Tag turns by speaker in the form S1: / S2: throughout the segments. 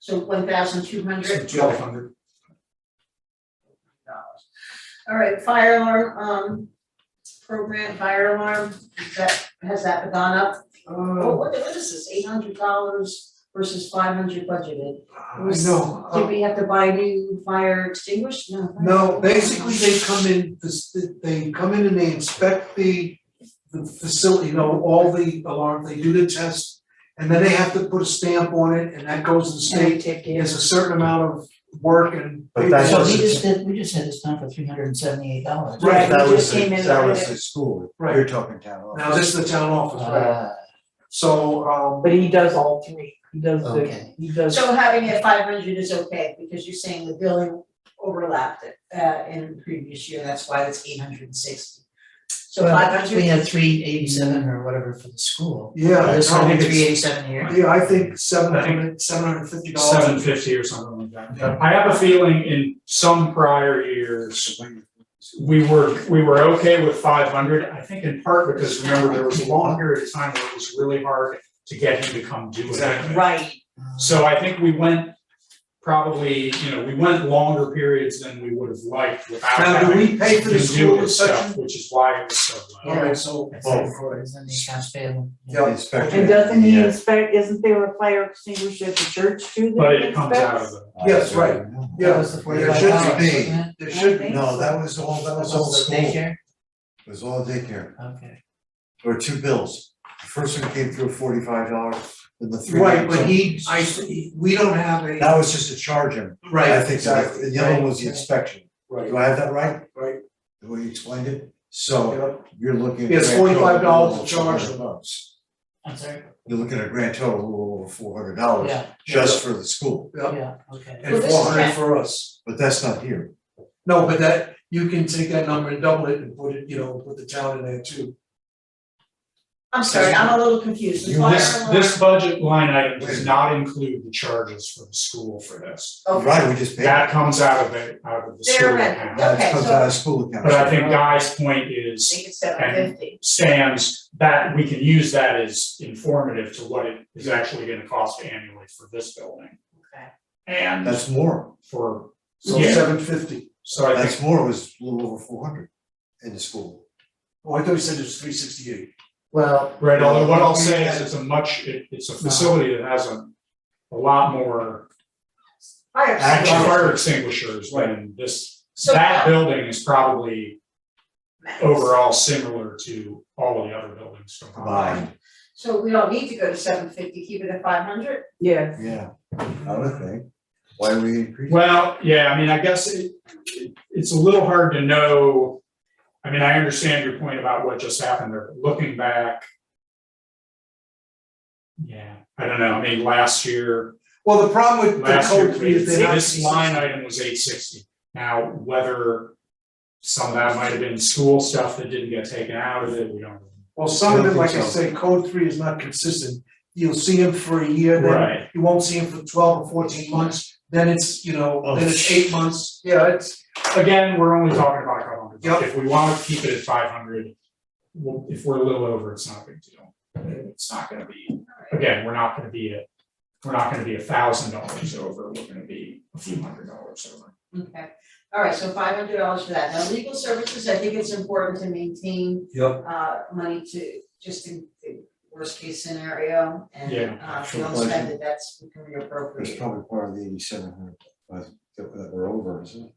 S1: So one thousand two hundred
S2: Twelve hundred.
S1: dollars. All right, fire alarm, um, program, fire alarm, is that, has that gone up? Oh, what, what is this, eight hundred dollars versus five hundred budgeted?
S2: I know,
S1: Did
S2: uh,
S1: we have to buy new fire extinguishers? No.
S2: no, basically they come in, this- they come in and they inspect the, the facility, you know, all the alarm, they do the test. And then they have to put a stamp on it and that goes to the state, it's a certain amount of work and.
S3: But that
S4: So we
S3: doesn't-
S4: just did, we just had this done for three hundred and seventy-eight dollars.
S1: Right,
S3: That
S1: we
S3: was,
S1: just came
S3: the-
S1: in
S3: that
S1: with
S3: was
S1: it.
S3: the school,
S2: Right.
S3: you're talking town oh.
S2: Now,
S3: office.
S2: this is the town office, right?
S4: Uh,
S2: So, um,
S5: But he does all three, he does the,
S4: Okay.
S5: he does.
S1: So having it five hundred is okay, because you're saying the billing overlapped it, uh, in the previous year, that's why it's eight hundred and sixty. So
S4: well,
S1: five hundred.
S4: We had three eighty-seven or whatever for the school.
S2: yeah,
S4: This
S2: no,
S4: one had
S2: it's-
S4: three eighty-seven here.
S2: yeah, I think seven
S6: I think-
S2: hundred, seven hundred fifty dollars.
S6: seven fifty or something like that. But I have a feeling in some prior years, we were, we were okay with five hundred, I think in part because remember, there was a long period of time where it was really hard to get him to come do
S2: Exactly.
S6: it.
S5: Right,
S6: So I think we went probably, you know, we went longer periods than we would have liked without
S2: Now, do
S6: having
S2: we pay for
S6: to
S2: the
S6: do
S2: school
S6: this stuff,
S2: section?
S6: which is why it was so low.
S2: Alright, so.
S4: That's like four, isn't the accounts payable?
S2: Yeah.
S3: Inspector.
S5: and doesn't he
S3: Yeah.
S5: inspect, isn't there a fire extinguisher at the church too that
S6: But
S5: he
S6: it comes out of
S5: inspects?
S6: the.
S2: Yes, right.
S4: That
S2: Yeah,
S4: was the
S3: There
S4: forty-five dollars,
S3: shouldn't
S4: wasn't
S3: be,
S4: it?
S2: there should be,
S3: no, that was all, that was all
S4: Also
S3: school, it
S4: daycare?
S3: was all daycare,
S4: Okay.
S3: there were two bills. The First one came through forty-five dollars, then the three.
S2: right, but he, I, we don't have a,
S3: That was just to charge him,
S2: right,
S3: I think, that-
S2: exactly,
S3: the other one was the inspection,
S2: right,
S3: do I have that right?
S2: Right.
S3: The way you explained it, so
S2: yeah.
S3: you're looking. at a
S2: It's
S3: grand total
S2: forty-five dollars to
S3: of a little over
S2: charge a month.
S4: I'm sorry,
S3: You're looking at a grand total of a little over four hundred dollars
S4: yeah,
S3: just for the school,
S2: Yeah.
S4: yeah, okay.
S2: and
S1: Well, this is
S2: four hundred
S1: grand.
S2: for us.
S3: but that's not here.
S2: No, but that, you can take that number and double it and put it, you know, put the town in there too.
S1: I'm sorry, I'm a little confused, the
S6: You-
S1: fire
S6: This,
S1: alarm-
S6: this budget line item does not include the charges for the school for this.
S1: Okay,
S3: Right, we just paid.
S6: That comes out of the, out of the
S1: They're
S6: school
S1: ready.
S6: account.
S3: That
S1: Okay,
S3: comes
S1: so-
S3: out of school account.
S6: But I think Guy's point
S1: I
S6: is,
S1: think it's seven fifty.
S6: stands, that we can use that as informative to what it is actually gonna cost annually for this building.
S1: Okay.
S6: And
S3: That's more,
S6: for,
S2: So
S6: Yeah.
S2: seven fifty.
S6: so I think,
S3: that's more, it was a little over four hundred in the school.
S2: Oh, I thought you said it was three sixty-eight.
S4: Well,
S6: right, although what I'll say is it's a much, it, it's a facility that has a, a lot more
S1: Fire
S3: Actually-
S1: extinguisher
S6: fire extinguishers than this.
S1: So-
S6: That building is probably
S1: max.
S6: overall similar to all of the other buildings combined.
S3: Combined,
S1: So we don't need to go to seven fifty, keep it at five hundred?
S5: yes.
S3: yeah, I would think, why we increased.
S6: Well, yeah, I mean, I guess it, it- it's a little hard to know. I mean, I understand your point about what just happened there, but looking back. Yeah, I don't know, I mean, last year,
S2: Well, the problem with the
S6: last year,
S2: code is they're not.
S6: this line item was eight sixty. Now, whether some of that might have been school stuff that didn't get taken out of it, we don't.
S2: Well, some of
S3: I
S2: it,
S3: don't
S2: like I
S3: think so.
S2: say, code three is not consistent. You'll see him for a year, then
S6: Right,
S2: you won't see him for twelve or fourteen months, then it's, you know, then it's
S3: Oh.
S2: eight months, yeah, it's,
S6: again, we're only talking about a couple hundred.
S2: Yep.
S6: If we wanna keep it at five hundred, if we're a little over, it's not a big deal. It's not gonna be again, we're not gonna be at, we're not gonna be a thousand dollars over, we're gonna be a few hundred dollars over.
S1: Okay, all right, so five hundred dollars for that. Now, legal services, I think it's important to maintain
S2: Yep.
S1: uh money to, just in the worst case scenario and
S6: Yeah.
S1: uh if we
S3: Sure,
S1: don't
S3: pleasure.
S1: spend it, that's we can
S3: That's
S1: reappropriate.
S3: probably part of the eighty-seven hundred, that that we're over, isn't it?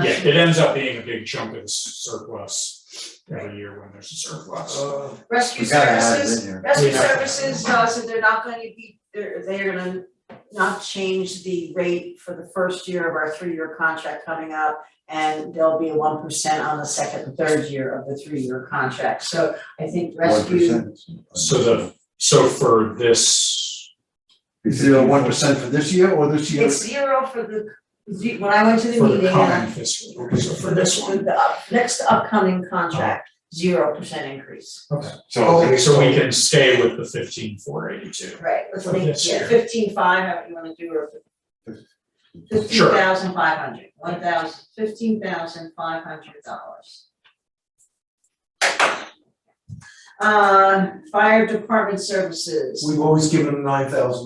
S6: Yeah, it ends up being a big chunk of surplus every year when there's a surplus.
S2: Uh,
S1: Rescue
S3: We gotta have it
S1: services,
S3: in here.
S1: rescue
S6: We have-
S1: services, uh so they're not gonna be, they're they're gonna not change the rate for the first year of our three-year contract coming up. And there'll be one percent on the second and third year of the three-year contract. So I think rescue
S3: 1%.
S6: So the- So for this,
S3: Is there a one percent for this year or this year?
S1: It's zero for the, ze- when I went to the
S6: for
S1: meeting
S6: the
S1: and I-
S6: common fiscal, year, so for this one.
S1: the up- next upcoming contract, zero percent increase.
S3: So.
S6: So we can stay with the fifteen four eighty two.
S1: Right, let's
S6: For
S1: make,
S6: this
S1: yeah,
S6: year.
S1: fifteen five, however you wanna do, or fifteen
S6: Sure.
S1: thousand five hundred, one thousand, fifteen thousand five hundred dollars. Uh, fire department services.
S2: we've always given them nine thousand